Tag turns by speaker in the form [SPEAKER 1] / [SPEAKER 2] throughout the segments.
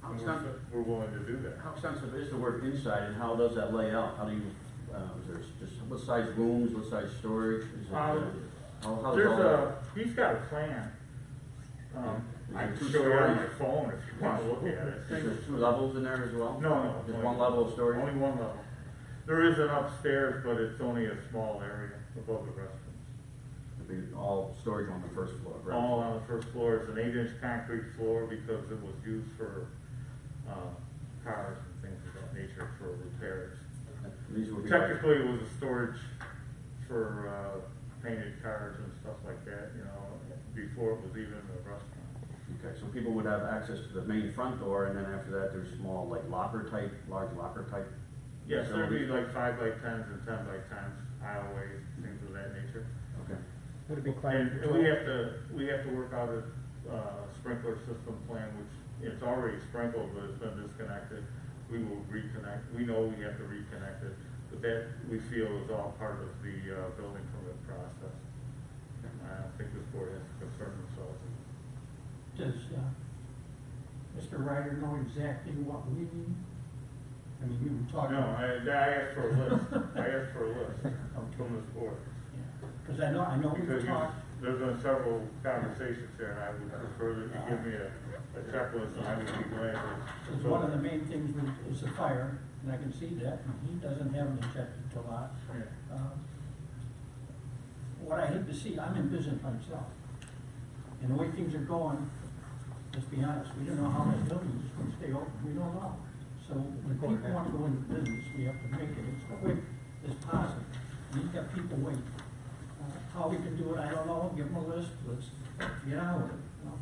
[SPEAKER 1] How
[SPEAKER 2] And
[SPEAKER 1] extensive,
[SPEAKER 2] we're- We're willing to do that.
[SPEAKER 1] how extensive is the work inside and how does that lay out? How do you, uh, is there just, what size rooms, what size storage? Is it, uh,
[SPEAKER 3] Um,
[SPEAKER 1] How, how's all
[SPEAKER 3] There's
[SPEAKER 1] that?
[SPEAKER 3] a, he's got a plan. Um, I
[SPEAKER 1] Is it
[SPEAKER 3] can
[SPEAKER 1] two
[SPEAKER 3] show you on my
[SPEAKER 1] stories?
[SPEAKER 3] phone if you want to look at it.
[SPEAKER 1] Is there two levels in there as well?
[SPEAKER 3] No, no.
[SPEAKER 1] Just
[SPEAKER 3] only-
[SPEAKER 1] one level of storage?
[SPEAKER 3] Only one level. There is an upstairs, but it's only a small area above the restrooms.
[SPEAKER 1] It'd be all storage on the first floor, right?
[SPEAKER 3] All on the first floor, it's an eight-inch concrete floor because it was used for, um, cars and things of that nature for repairs.
[SPEAKER 1] These would be like-
[SPEAKER 3] Technically, it was a storage for, uh, painted cars and stuff like that, you know, before it was even a restaurant.
[SPEAKER 1] Okay, so people would have access to the main front door, and then after that, there's small, like locker type, large locker type?
[SPEAKER 3] Yes, there'd be
[SPEAKER 1] facilities?
[SPEAKER 3] like five by tens and ten by tens, aisleways, things of that nature.
[SPEAKER 1] Okay,
[SPEAKER 4] Would it be
[SPEAKER 3] And
[SPEAKER 4] climate
[SPEAKER 3] we
[SPEAKER 4] controlled?
[SPEAKER 3] have to, we have to work out a uh, sprinkler system plan, which it's already sprinkled, but it's been disconnected. We will reconnect, we know we have to reconnect it, but that we feel is all part of the uh, building permit process. I don't think this board has to concern themselves.
[SPEAKER 4] Does, uh, Mr. Ryder know exactly what we need? I mean, we were talking.
[SPEAKER 3] Oh, No, I, I asked for a list, I asked for a list from this board.
[SPEAKER 4] Cause I know, I know
[SPEAKER 3] Because
[SPEAKER 4] we've
[SPEAKER 3] you,
[SPEAKER 4] talked,
[SPEAKER 3] there's been several conversations here, and I would prefer that you give me a, a checklist, and I would be glad to.
[SPEAKER 4] cause one of the main things was- is the fire, and I can see that, and he doesn't have an objective to lot.
[SPEAKER 3] Yeah.
[SPEAKER 4] Uh, What I hate to see, I'm in business myself, and the way things are going, let's be honest, we don't know how that building is gonna stay open, we don't know. So when people want to go into business, we have to make it as quick as possible, and you've got people waiting. Uh, How we can do it, I don't know, give them a list, let's get on with it, you know?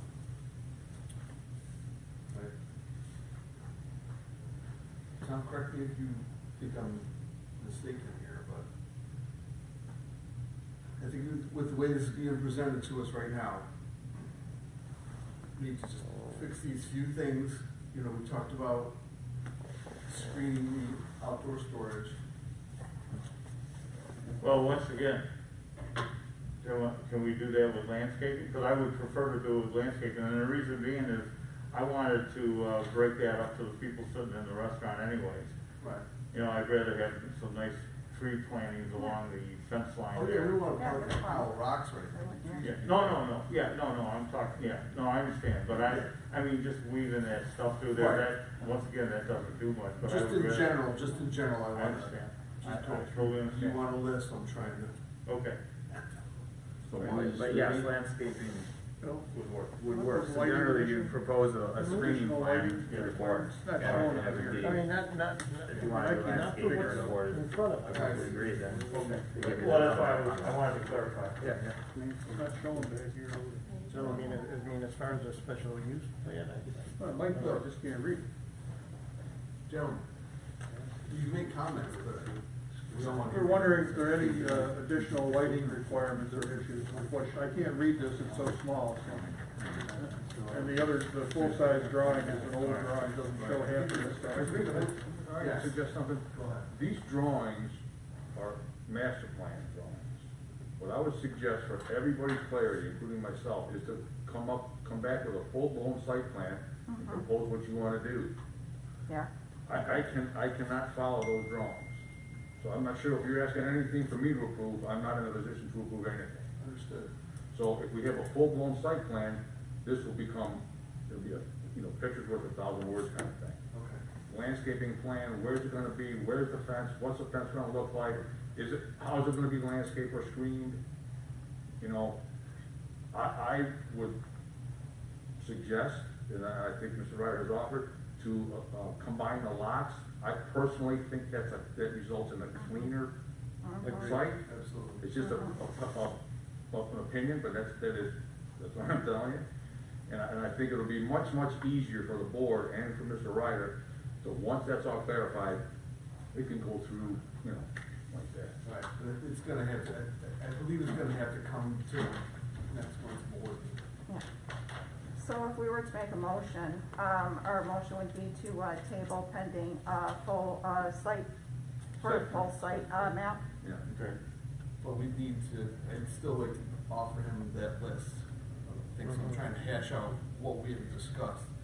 [SPEAKER 5] Tom, correct me if you think I'm mistaken here, but I think with- with the way this is being presented to us right now, we need to just fix these few things. You know, we talked about screening the outdoor storage.
[SPEAKER 3] Well, once again, do you want- can we do that with landscaping? Because I would prefer to do it with landscaping, and the reason being is, I wanted to, uh, break that up to the people sitting in the restaurant anyways.
[SPEAKER 5] Right.
[SPEAKER 3] You know, I'd rather have some nice tree plantings along the fence
[SPEAKER 5] Oh,
[SPEAKER 3] line
[SPEAKER 5] yeah, we
[SPEAKER 3] there.
[SPEAKER 5] don't want to pile pile rocks right now.
[SPEAKER 3] Yeah, no, no, no, yeah, no, no, I'm talking, yeah, no, I understand, but I, I mean, just weaving that stuff through there, that, once again, that doesn't do much, but I
[SPEAKER 5] Just
[SPEAKER 3] would
[SPEAKER 5] in
[SPEAKER 3] rather-
[SPEAKER 5] general, just in general, I
[SPEAKER 3] I
[SPEAKER 5] want
[SPEAKER 3] understand,
[SPEAKER 5] to.
[SPEAKER 3] I I totally
[SPEAKER 5] You
[SPEAKER 3] understand,
[SPEAKER 5] want a list, I'm trying to.
[SPEAKER 3] okay.
[SPEAKER 1] so one is.
[SPEAKER 6] But yes, landscaping
[SPEAKER 3] Would work.
[SPEAKER 6] would work, so generally you propose a, a screening plan
[SPEAKER 3] yeah.
[SPEAKER 6] to the board.
[SPEAKER 7] It's not showing up here. I mean, not, not,
[SPEAKER 6] If you wanna do
[SPEAKER 7] Mikey, not
[SPEAKER 6] landscaping
[SPEAKER 7] the
[SPEAKER 6] to the
[SPEAKER 7] what's in
[SPEAKER 6] board,
[SPEAKER 7] front of
[SPEAKER 6] I
[SPEAKER 7] it.
[SPEAKER 6] would agree then.
[SPEAKER 3] Well, that's why I was, I wanted to clarify.
[SPEAKER 7] Yeah, I mean, it's not showing back here. So, I mean, it- I mean, as far as a special use plan, I.
[SPEAKER 5] Well, it might be, I
[SPEAKER 7] just can't read.
[SPEAKER 5] Gentlemen, you make comments, but we don't want to.
[SPEAKER 7] We're wondering if there are any uh, additional lighting requirements or issues, which I can't read this, it's so small, so. And the other, the full-size drawing is an old drawing, doesn't show half of this stuff. Oh,
[SPEAKER 5] I can
[SPEAKER 2] suggest something.
[SPEAKER 5] Go ahead.
[SPEAKER 2] These drawings are master plan drawings. What I would suggest for everybody's clarity, including myself, is to come up, come back with a full-blown site plan and propose what you wanna do.
[SPEAKER 8] Yeah,
[SPEAKER 2] I, I can, I cannot follow those drawings. So I'm not sure if you're asking anything for me to approve, I'm not in a position to approve anything.
[SPEAKER 5] Understood.
[SPEAKER 2] So if we have a full-blown site plan, this will become, it'll be a, you know, pictures worth a thousand words kind of thing.
[SPEAKER 5] Okay.
[SPEAKER 2] landscaping plan, where's it gonna be, where's the fence, what's the fence gonna look like? Is it, how's it gonna be landscaped or screened? You know, I, I would suggest, and I I think Mr. Ryder has offered, to, uh, uh, combine the lots. I personally think that's a, that results in a cleaner site.
[SPEAKER 5] Absolutely.
[SPEAKER 2] It's just a, a, a- a- an opinion, but that's, that is, that's what I'm telling you. And I, and I think it'll be much, much easier for the board and for Mr. Ryder, so once that's all clarified, it can go through, you know, like that.
[SPEAKER 5] Right, but it's gonna have to, I- I believe it's gonna have to come to next month's board.
[SPEAKER 8] yeah. So if we were to make a motion, um, our motion would be to, uh, table pending, uh, full, uh, site, for a full site, uh, map.
[SPEAKER 2] Yeah,
[SPEAKER 3] Okay.
[SPEAKER 5] But we need to, I'd still like
[SPEAKER 7] Mm-hmm.
[SPEAKER 5] to offer him that list of things I'm trying to hash out, what we have discussed.